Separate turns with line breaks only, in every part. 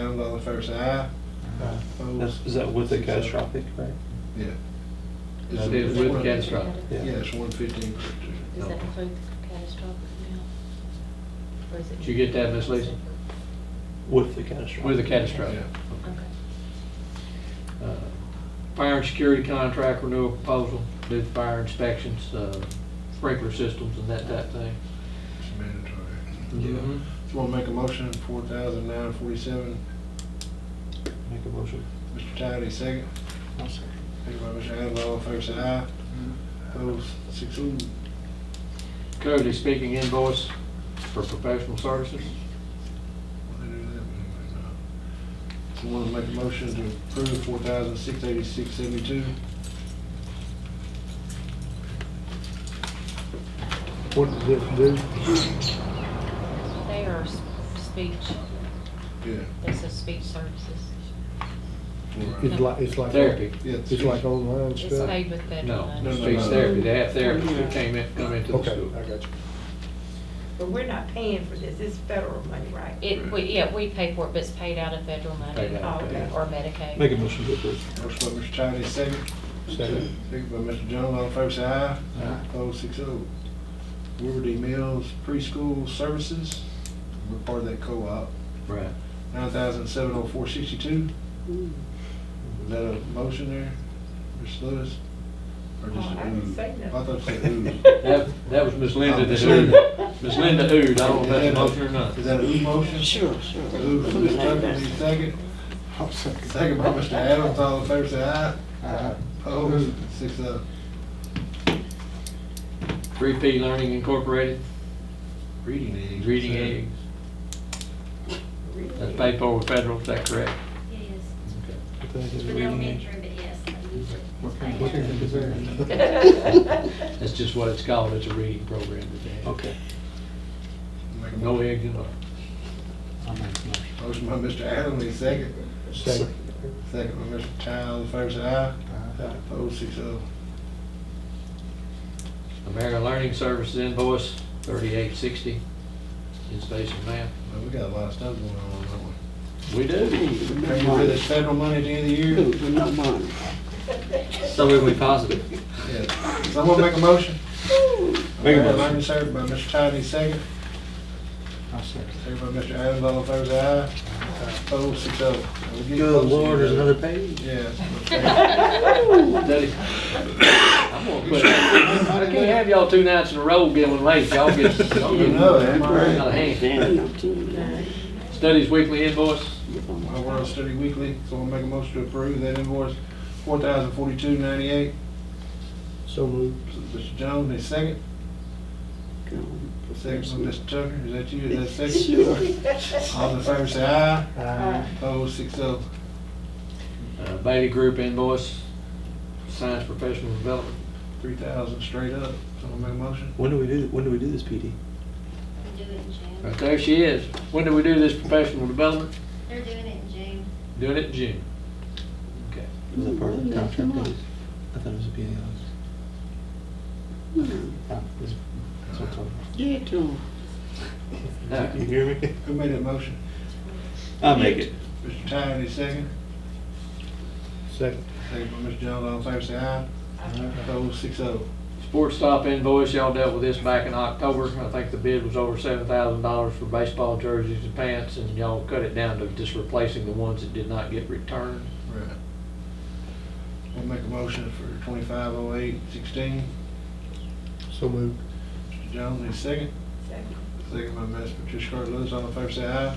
the fair side. aye.
That's,
Opposed?
is that with the
Six, seven.
catastrophic, right?
Yeah.
It's
It's-
with
it's one-
catastrophic.
Yeah,
Yeah.
it's one fifteen.
Does that include the catastrophic now? Or is it?
Did you get that, Ms. Lisa?
With the catastrophic.
With the catastrophic.
Yeah.
Okay.
Uh, Fire and security contract renewal proposal, do fire inspections, uh, sprinkler systems and that type thing.
It's mandatory. Just wanna make a motion, four thousand nine forty-seven.
Make a motion.
Mr. Tidy, second. Second by Mr. Adams, all in favor, say aye. Opposed? Six oh.
Cody speaking invoice for professional services.
Someone make a motion to approve four thousand six eighty-six seventy-two.
What does this do?
They are s- speech,
Yeah.
this is speech services.
It's like, it's like.
Therapy.
Yeah.
It's like online
It's
stuff?
paid with federal
No,
money.
No, no,
speech
no.
therapy. They have therapy that came in, come into the
Okay,
school.
I got you.
But we're not paying for this, it's federal money, right?
It, we, yeah, we pay for it, but it's paid out of federal money Oh,
Paid out,
okay.
or Medicaid.
Make a motion to approve.
Motion by Mr. Tidy, second.
Second.
Second by Mr. Jones, all in favor, say aye.
Aye.
Opposed, six oh. Weaver D. Mills Preschool Services, we're part of that co-op,
Right.
nine thousand seven oh four sixty-two. Is that a motion there, Mr. Lewis? Or
Oh,
just
I
a
didn't
ooh?
say
I
nothing.
thought you said ooh.
That, that was Miss Linda that
Uh, Miss
oohed. Miss Linda oohed. I don't know if that's a motion or not.
Is that an ooh motion? Sure, sure. Ooh, from Mr. Tucker, need a second? Second by Mr. Adams, all in favor, say aye. Aye. Opposed, six oh.
3P Learning Incorporated,
Reading aids.
reading aids. That's paid for with federal, is that correct?
It is.
Put that in
It's for the
reading
elementary, but yes, I use it. It's paid
what kind
out.
of design?
That's just what it's called, it's a reading program that they have.
Okay.
Make a
No
motion.
eggs in it.
Motion by Mr. Adams, need a second?
Second.
Second by Mr. Child, favor say aye.
Aye.
Opposed, six oh.
American Learning Services invoice, thirty-eight sixty, in space and math.
Man, we got a lot of stuff going on, don't
We do.
we? Paying for this federal money at the end of the year?
So we we positive.
Yeah. Someone make a motion?
Make a
Alright,
motion.
Learning served by Mr. Child, need a second? Second by Mr. Adams, all in favor say aye. Opposed, six oh. We'll get close
Good
to
lord, there's
you,
another page?
brother. Yeah.
Daddy, I'm gonna quit. I can't have y'all two nights in a row getting late, y'all get, y'all
You
get
know
out
that,
of
right?
hand. Studies Weekly invoice,
My World Study Weekly, someone make a motion to approve that invoice, four thousand forty-two ninety-eight.
So moved.
Mr. Jones, need a second? Second from Mr. Tucker, is that you, is that second? All in favor say aye,
Aye.
opposed six oh.
uh, Bailey Group invoice, Science Professional Development.
Three thousand straight up, someone make a motion?
When do we do, when do we do this, PD?
We do it in June.
Right there she is. When do we do this professional development?
They're doing it in June.
Doing it in June. Okay.
Is that part of the contract? I thought it was a PD. Ah, it's- it's what's on.
Now,
You hear me?
Who made that motion?
I'll make it.
Mr. Tyner, need a second?
Second.
Second by Mr. Jones, all in favor say aye, opposed six oh.
Sports stop invoice, y'all dealt with this back in October. I think the bid was over seven thousand dollars for baseball jerseys and pants, and y'all cut it down to just replacing the ones that did not get returned.
Right. We'll make a motion for twenty-five oh eight sixteen,
So moved.
Mr. Jones, need a second? Second by Ms. Patricia Carter Lewis, all in favor say aye,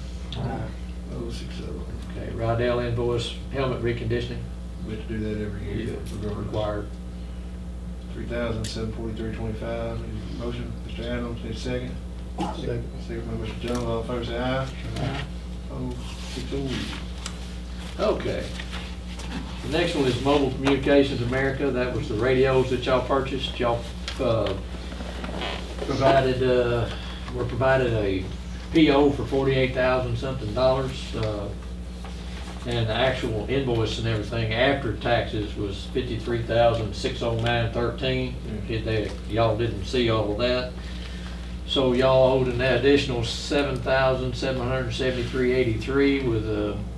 opposed six oh.
Okay, Rydell invoice, helmet reconditioning.
We have to do that every year.
Required.
Three thousand seven forty-three twenty-five, motion, Mr. Adams, need a second?
Second.
Second by Mr. Jones, all in favor say aye. Opposed, six oh.
Okay. The next one is Mobile Communications America. That was the radios that y'all purchased. Y'all uh, provided, uh, were provided a PO for forty-eight thousand something dollars. uh, And the actual invoice and everything after taxes was fifty-three thousand six oh nine thirteen. Did they, y'all didn't see all of that. So y'all owed an additional seven thousand seven hundred seventy-three eighty-three with a